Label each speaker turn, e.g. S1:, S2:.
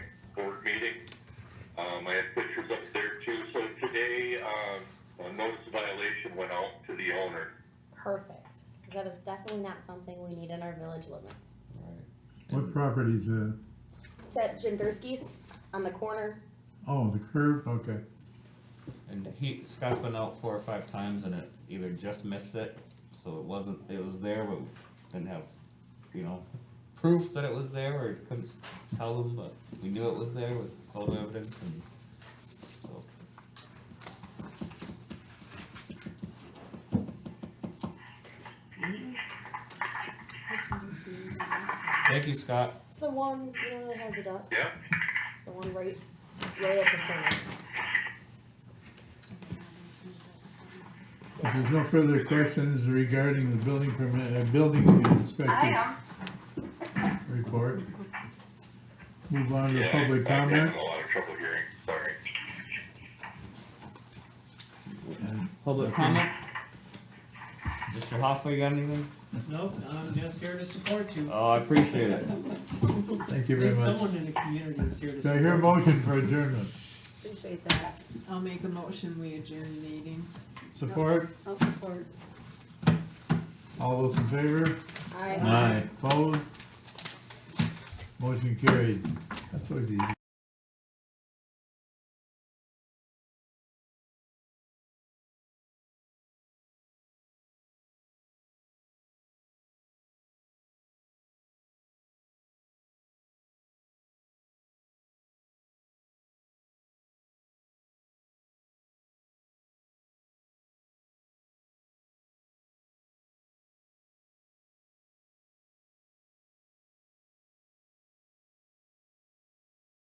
S1: Um, I have pictures up there too. So today, um, a notice of violation went out to the owner.
S2: Perfect, cause that is definitely not something we need in our village limits.
S3: What uh,
S4: And-
S3: property's that?
S2: It's at Jenderski's on the corner.
S3: Oh, the curb, okay.
S4: And he, Scott's been out four or five times and it either just missed it, so it wasn't, it was there, but didn't have, you know, proof that it was there, or couldn't s- tell them, but we knew it was there, with photo evidence and, so. Thank you, Scott.
S2: It's the one, you know, they have the duck,
S1: Yeah,
S2: the one right, right at the corner.
S3: If there's no further questions regarding the building permit, uh, building inspector's
S5: I
S3: report. Move on to
S1: yeah. I-
S3: public
S1: I'm
S3: comment.
S1: having a lot of trouble hearing, sorry.
S4: Public comment? Mr. Hoffa, you got anything?
S6: No, I'm just here to support you.
S4: Oh, I appreciate it.
S3: Thank you very
S6: There's
S3: much.
S6: someone in the community who's here to
S3: Do I
S6: support you.
S3: hear a motion for adjournment?
S2: Appreciate that.
S5: I'll make a motion, we adjourn the meeting.
S3: Support?
S2: I'll support.
S3: All those in favor?
S2: Aye.
S3: Opposed? Motion carried. That's always easy.